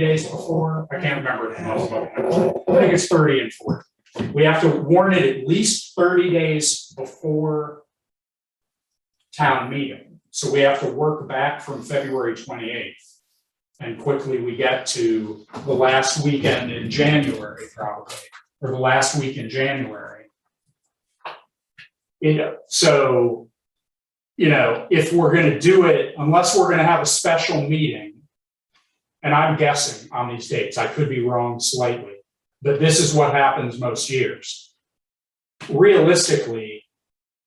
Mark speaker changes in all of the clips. Speaker 1: days before, I can't remember. now. I think it's thirty and forty. We have to warn it at least thirty days before town meeting, so we have to work back from February twenty eighth. And quickly we get to the last weekend in January probably, or the last week in January. You know, so, you know, if we're gonna do it, unless we're gonna have a special meeting, and I'm guessing on these dates, I could be wrong slightly, but this is what happens most years. Realistically,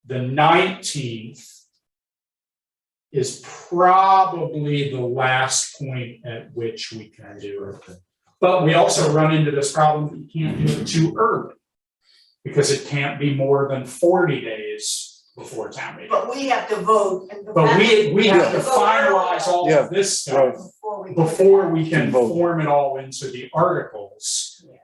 Speaker 1: the nineteenth is probably the last point at which we can do it. But we also run into this problem, that you can't do it too early. Because it can't be more than forty days before town meeting.
Speaker 2: But we have to vote and.
Speaker 1: But we, we have to finalize all
Speaker 3: Yeah.
Speaker 1: of this
Speaker 3: Right.
Speaker 1: stuff before we can
Speaker 3: And vote.
Speaker 1: form it all into the articles.
Speaker 2: Yeah.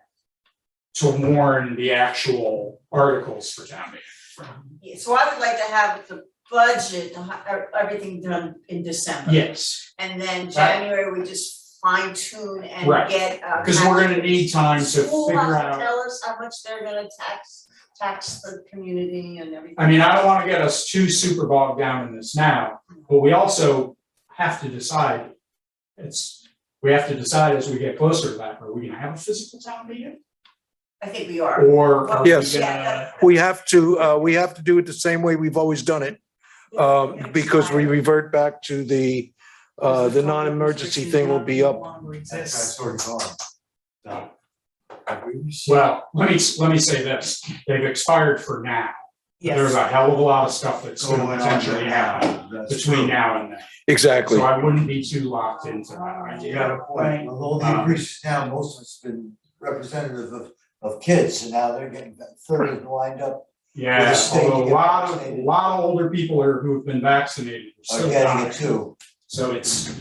Speaker 1: To warn the actual articles for town meeting.
Speaker 2: Yeah, So I would like to have the budget, the hi- er, everything done in December.
Speaker 1: Yes,
Speaker 2: And then January, we just fine tune and
Speaker 1: Right.
Speaker 2: get. uh,
Speaker 1: because we're gonna need time to
Speaker 2: School
Speaker 1: figure
Speaker 2: has to
Speaker 1: out,
Speaker 2: tell us how much they're gonna tax, tax the community and everything.
Speaker 1: I mean, I don't wanna get us too super bogged down in this now, but we also have to decide. It's, we have to decide as we get closer to that, are we gonna have a physical town meeting?
Speaker 2: I think we are.
Speaker 1: Or are we
Speaker 3: Yes.
Speaker 1: gonna,
Speaker 3: We have to, uh, we have to do it the same way we've always done it, um, because we revert back to the, uh, the non-emergency thing will be up.
Speaker 4: That's
Speaker 2: Yes.
Speaker 4: sort of gone. No. Have we received-
Speaker 1: well, let me, let me say this, they've expired for now. There's a hell of a lot of stuff that's
Speaker 4: Going
Speaker 1: going to
Speaker 4: on
Speaker 1: potentially
Speaker 4: now,
Speaker 1: happen
Speaker 4: that's
Speaker 1: between
Speaker 4: true.
Speaker 1: now and then.
Speaker 3: Exactly.
Speaker 1: So I wouldn't be too locked into that
Speaker 4: You
Speaker 1: idea.
Speaker 4: got a point, although the
Speaker 1: Um,
Speaker 4: increase now, most of it's been representative of, of kids, and now they're getting thirty lined up. With
Speaker 1: Yeah,
Speaker 4: the state
Speaker 1: although a
Speaker 4: getting
Speaker 1: lot of, a
Speaker 4: vaccinated.
Speaker 1: lot of older people are, who've been vaccinated, are
Speaker 4: Are
Speaker 1: still
Speaker 4: getting it
Speaker 1: dying.
Speaker 4: too.
Speaker 1: So it's,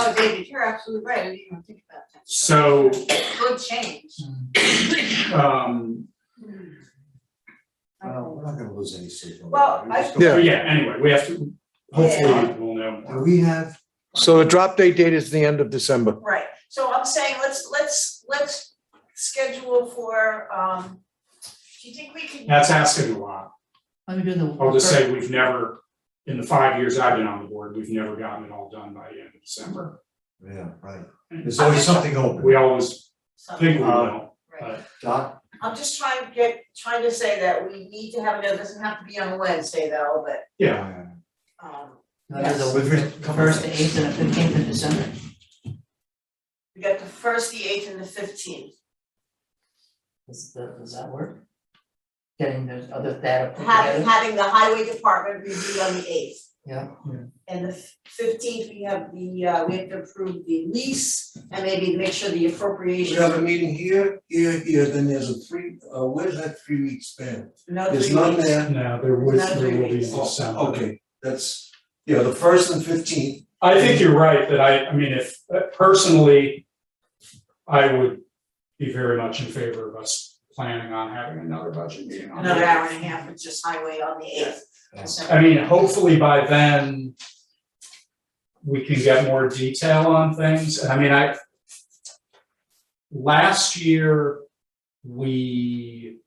Speaker 2: Oh, David, you're absolutely right, I didn't even think about that.
Speaker 1: So-
Speaker 2: Good change.
Speaker 1: um,
Speaker 4: Well, we're not gonna lose any signal.
Speaker 2: Well,
Speaker 4: We're just
Speaker 3: I- Yeah.
Speaker 1: but yeah, anyway, we have to, hopefully
Speaker 4: Yeah.
Speaker 1: we'll know
Speaker 4: gonna- Do
Speaker 1: more.
Speaker 4: we have?
Speaker 3: So the drop date date is the end of December.
Speaker 2: Right, so I'm saying, let's, let's, let's schedule for, um, do you think we can?
Speaker 1: That's asking a lot.
Speaker 5: I'm doing the.
Speaker 1: I'll just say we've never, in the five years I've been on the board, we've never gotten it all done by the end of December.
Speaker 4: Yeah, right. There's always something open.
Speaker 1: We always
Speaker 2: Something,
Speaker 1: think we will.
Speaker 2: right.
Speaker 4: Doc,
Speaker 2: I'm just trying to get, trying to say that we need to have, it it doesn't have to be on Wednesday though, but,
Speaker 1: Yeah,
Speaker 2: um,
Speaker 5: There's
Speaker 4: With
Speaker 5: a
Speaker 4: re-
Speaker 5: first, the eighth, and the fifteenth of December.
Speaker 2: we got the first, the eighth and the fifteenth.
Speaker 5: Does, does that work? Getting those other data put
Speaker 2: Having,
Speaker 5: together?
Speaker 2: having the highway department review on the eighth.
Speaker 5: Yeah.
Speaker 2: And the fifteenth, we have the, uh, we have to approve the lease and maybe make sure the
Speaker 6: We
Speaker 2: appropriation.
Speaker 6: have a meeting here, here, here, then there's a three, uh, where's that three week span?
Speaker 2: No
Speaker 6: There's
Speaker 2: three
Speaker 6: none
Speaker 2: weeks.
Speaker 6: there.
Speaker 1: no, there was,
Speaker 2: Not
Speaker 1: there
Speaker 2: three
Speaker 1: will be
Speaker 4: Oh,
Speaker 2: weeks.
Speaker 1: December.
Speaker 6: Okay, that's, yeah, the first and fifteenth,
Speaker 1: I think you're right, that I, I mean, if, uh, personally, I would be very much in favor of us planning on having another budget meeting on the
Speaker 2: Another hour and a half, it's just highway on the eighth.
Speaker 4: Yeah.
Speaker 1: I mean, hopefully by then, we can get more detail on things, and I mean, I, last year, we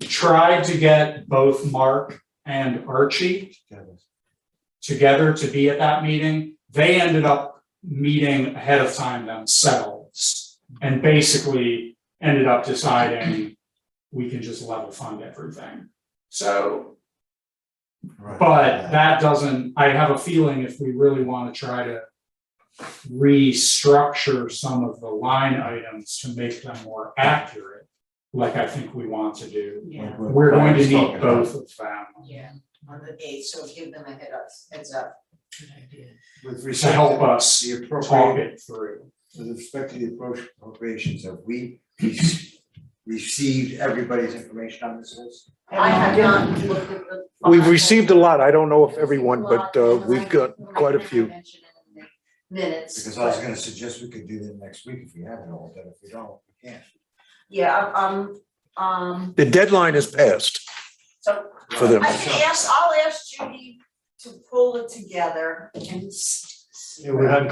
Speaker 1: tried to get both Mark and Archie together to be at that meeting. They ended up meeting ahead of time themselves and basically ended up deciding we can just level fund everything. So,
Speaker 4: Right.
Speaker 1: but that doesn't, I have a feeling if we really want to try to restructure some of the line items to make them more accurate, like I think we want to do,
Speaker 2: Yeah,
Speaker 4: Like what
Speaker 1: we're going to
Speaker 4: Brian's talking
Speaker 1: need
Speaker 4: about.
Speaker 1: both of them
Speaker 2: yeah, on the eighth, so give them a head up, heads up.
Speaker 4: With
Speaker 1: to
Speaker 4: respect
Speaker 1: help us
Speaker 4: the
Speaker 1: talk
Speaker 4: appropriate,
Speaker 1: it through.
Speaker 4: with respect to the appro- appropriations, have we re- received everybody's information on this list?
Speaker 2: I have not looked at the.
Speaker 3: We've received a lot. I don't know if everyone, but, uh, we've got quite a few.
Speaker 2: Minutes.
Speaker 4: Because I was gonna suggest we could do that next week if we have it all, but if we don't, we can't.
Speaker 2: Yeah, um, um,
Speaker 3: The deadline is passed
Speaker 2: so
Speaker 3: for them.
Speaker 2: I can ask, I'll ask Judy to pull it together and s-
Speaker 4: Yeah, we had